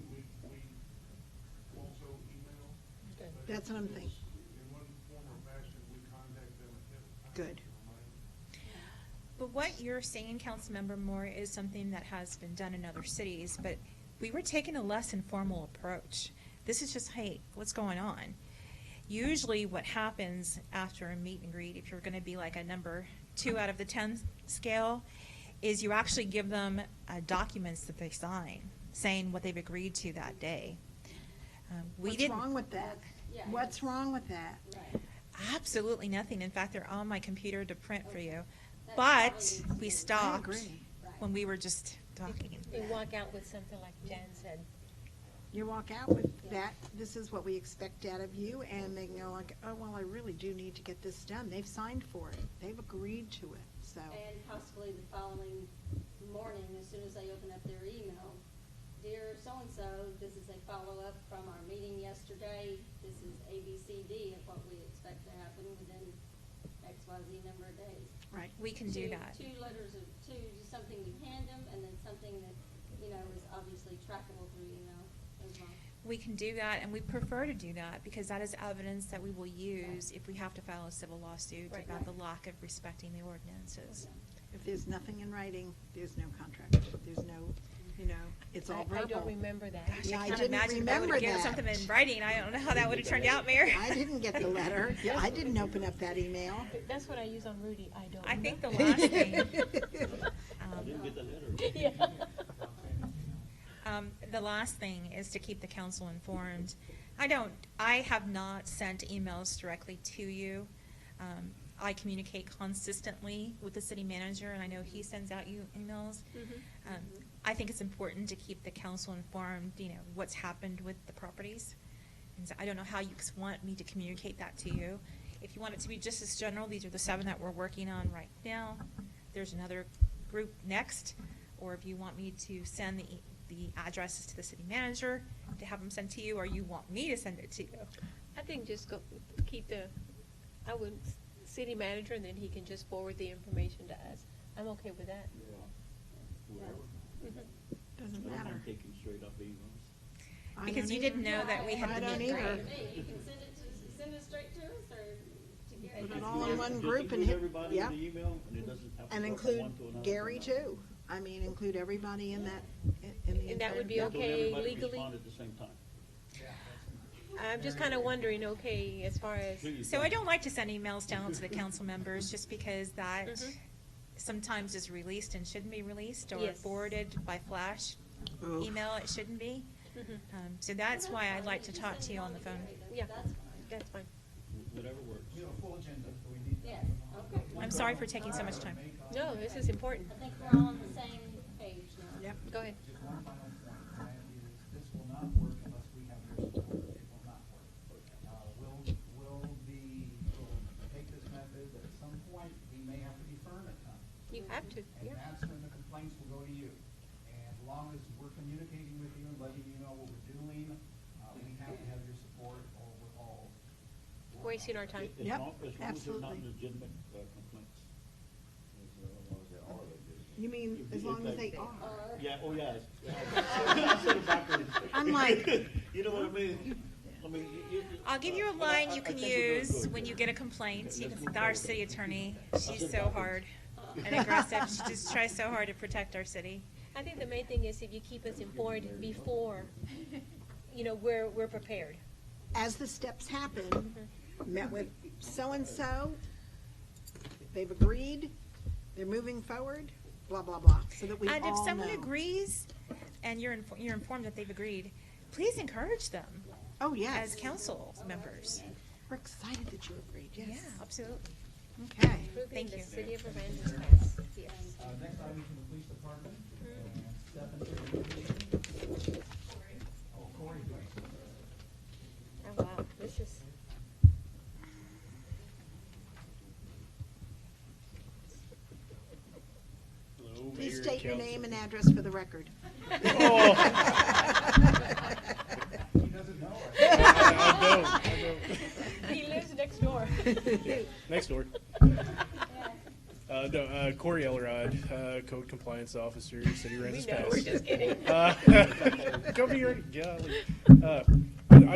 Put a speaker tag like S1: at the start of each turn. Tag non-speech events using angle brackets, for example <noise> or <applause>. S1: That's what I'm thinking.
S2: In one form or fashion, we contact them at that time.
S1: Good.
S2: to remind them.
S3: But what you're saying, Councilmember Moore, is something that has been done in other cities, but we were taking a less informal approach. This is just, hey, what's going on? Usually what happens after a meet and greet, if you're gonna be like a number two out of the ten scale, is you actually give them uh, documents that they sign, saying what they've agreed to that day. Um, We
S1: What's
S3: didn't.
S1: wrong with that?
S4: Yeah.
S1: What's wrong with that?
S3: Absolutely nothing. In fact, they're on my computer to print for you.
S4: That's
S3: But
S4: probably
S3: we
S4: true.
S3: stopped
S1: agree.
S3: when we were just talking.
S5: They walk out with something like Jan said.
S1: You walk out with that, this is what we expect out of you, and they can go like, oh, well, I really do need to get this done. They've signed for it. They've agreed to it, so.
S4: And possibly the following morning, as soon as they open up their email, dear so-and-so, this is a follow-up from our meeting yesterday. This is A, B, C, D of what we expect to happen within X, Y, Z number of days.
S1: Right.
S3: We can do
S4: Two-
S3: that.
S4: Two letters of, two, just something you hand them, and then something that, you know, is obviously trackable through email as well.
S3: We can do that, and we prefer to do that because that is evidence that we will use if we have to file a civil lawsuit
S5: Right.
S3: about the lack of respecting the ordinances.
S1: If there's nothing in writing, there's no contract. There's no, you know, it's all
S5: I-
S1: verbal.
S5: I don't remember that.
S3: Gosh,
S1: Yeah, I
S3: I can't
S1: didn't
S3: imagine if I
S1: remember
S3: would've given
S1: that.
S3: something in writing. I don't know how that would've turned out, Mayor.
S1: I didn't get
S5: <laughs>
S1: the
S3: <laughs>
S1: letter. Yeah, I didn't open up that email.
S5: But That's what I use on Rudy, I don't
S3: I think the
S5: remember. <laughs>
S3: last thing,
S6: I didn't get the letter.
S5: Yeah.
S3: Um, the last thing is to keep the council informed. I don't, I have not sent emails directly to you. Um, I communicate consistently with the city manager, and I know he sends out you emails. Um, I think it's important to keep the council informed, you know, what's happened with the properties. And so I don't know how you ex- want me to communicate that to you. If you want it to be just as general, these are the seven that we're working on right now. There's another group next, or if you want me to send the, e- the addresses to the city manager to have them sent to you, or you want me to send it to you.
S5: I think just go, keep the, I would, s- city manager, and then he can just forward the information to us. I'm okay with that.
S6: Whatever.
S1: Doesn't
S6: I don't mind
S1: matter.
S6: taking straight up emails.
S1: I
S3: Because
S1: don't
S3: you didn't
S1: either.
S3: know that we had
S1: I
S3: the
S1: don't
S3: meet and
S1: either.
S3: greet.
S4: Hey, you can send it to, send it straight to us, or to Gary.
S1: Put it all in one
S6: Just
S1: group and
S6: include
S1: hit,
S6: everybody
S1: yeah.
S6: in the email, and it doesn't have to
S1: And
S6: go from
S1: include
S6: one to another to
S1: Gary
S6: another.
S1: too. I mean, include everybody in that, in the.
S5: And that would
S1: entire-
S5: be
S6: Don't
S5: okay
S6: everybody
S5: legally?
S6: respond at the same time.
S5: I'm just kind of wondering, okay, as far as,
S6: Please
S3: So I don't like to send emails down to the council members, just because that
S5: Mhm.
S3: sometimes is released and shouldn't be released, or
S5: Yes.
S3: forwarded by flash
S1: Oof.
S3: email, it shouldn't be.
S5: Mhm.
S3: Um, So that's why I like to talk to you on the phone.
S5: yeah,
S4: That's fine.
S5: that's fine.
S6: Whatever works.
S7: We have a full agenda, so we need that.
S4: Yes, okay.
S3: I'm sorry for taking so much time.
S5: No, this is important.
S4: I think we're all on the same page now.
S1: Yep.
S5: Go ahead.
S7: Just one final point, and that is, this will not work unless we have your support. It will not work. Uh, We'll, we'll be, we'll take this method, but at some point, we may have to defer it. huh?
S5: You have to,
S7: And
S5: yeah.
S7: that's when the complaints will go to you. And as long as we're communicating with you and letting you know what we're doing, uh, we have to have your support or we're all.
S5: Wasting our time.
S6: As long-
S1: Yep,
S6: As long as they're not
S1: absolutely.
S6: legitimate uh, complaints.
S1: You mean, as long as they are.
S6: Yeah, oh, yeah. it's- yeah. I said it backwards.
S1: <laughs> I'm like-
S6: <laughs> You know what I mean? I mean, you- you-
S3: I'll give you a
S6: I- I-
S3: line
S6: I
S3: you can
S6: think we're doing
S3: use
S6: good
S3: when
S6: here.
S3: you get a complaint.
S6: Okay,
S3: You
S6: let's
S3: can,
S6: move
S3: our
S6: forward.
S3: city attorney,
S6: I'll
S3: she's
S6: send
S3: so
S6: backwards.
S3: hard and aggressive. She just tries so hard to protect our city.
S5: I think the main thing is if you keep us informed before, you know, we're, we're prepared.
S1: As the steps
S3: Mm-hmm.
S1: happen, met with so-and-so, they've agreed, they're moving forward, blah, blah, blah, so that we all
S3: And
S1: know.
S3: if someone agrees, and you're, infor- you're informed that they've agreed, please encourage them
S1: Oh,
S3: as
S1: yes.
S3: council members.
S1: We're excited that you agreed,
S3: Yeah,
S1: yes.
S3: absolutely.
S1: Okay.
S5: Improving
S3: Thank
S5: the
S3: you.
S5: city of Aransas Pass, yes.
S7: Uh, next item is from the police department, and Stephanie. Oh, Cory, please.
S5: Oh, wow,
S8: <laughs>
S5: this is.
S1: Please state your name and address for the
S6: <laughs>
S1: record. <laughs>
S7: He doesn't know
S6: <laughs>
S7: it.
S5: He lives next door.
S8: Next
S5: <laughs>
S8: door. Uh, no, uh, Corey Elrod, uh, Code Compliance Officer, City
S5: We
S8: Rents
S1: <laughs>
S5: know, we're
S8: Pass.
S5: <laughs> just kidding.
S8: Uh, Come here, golly. Uh,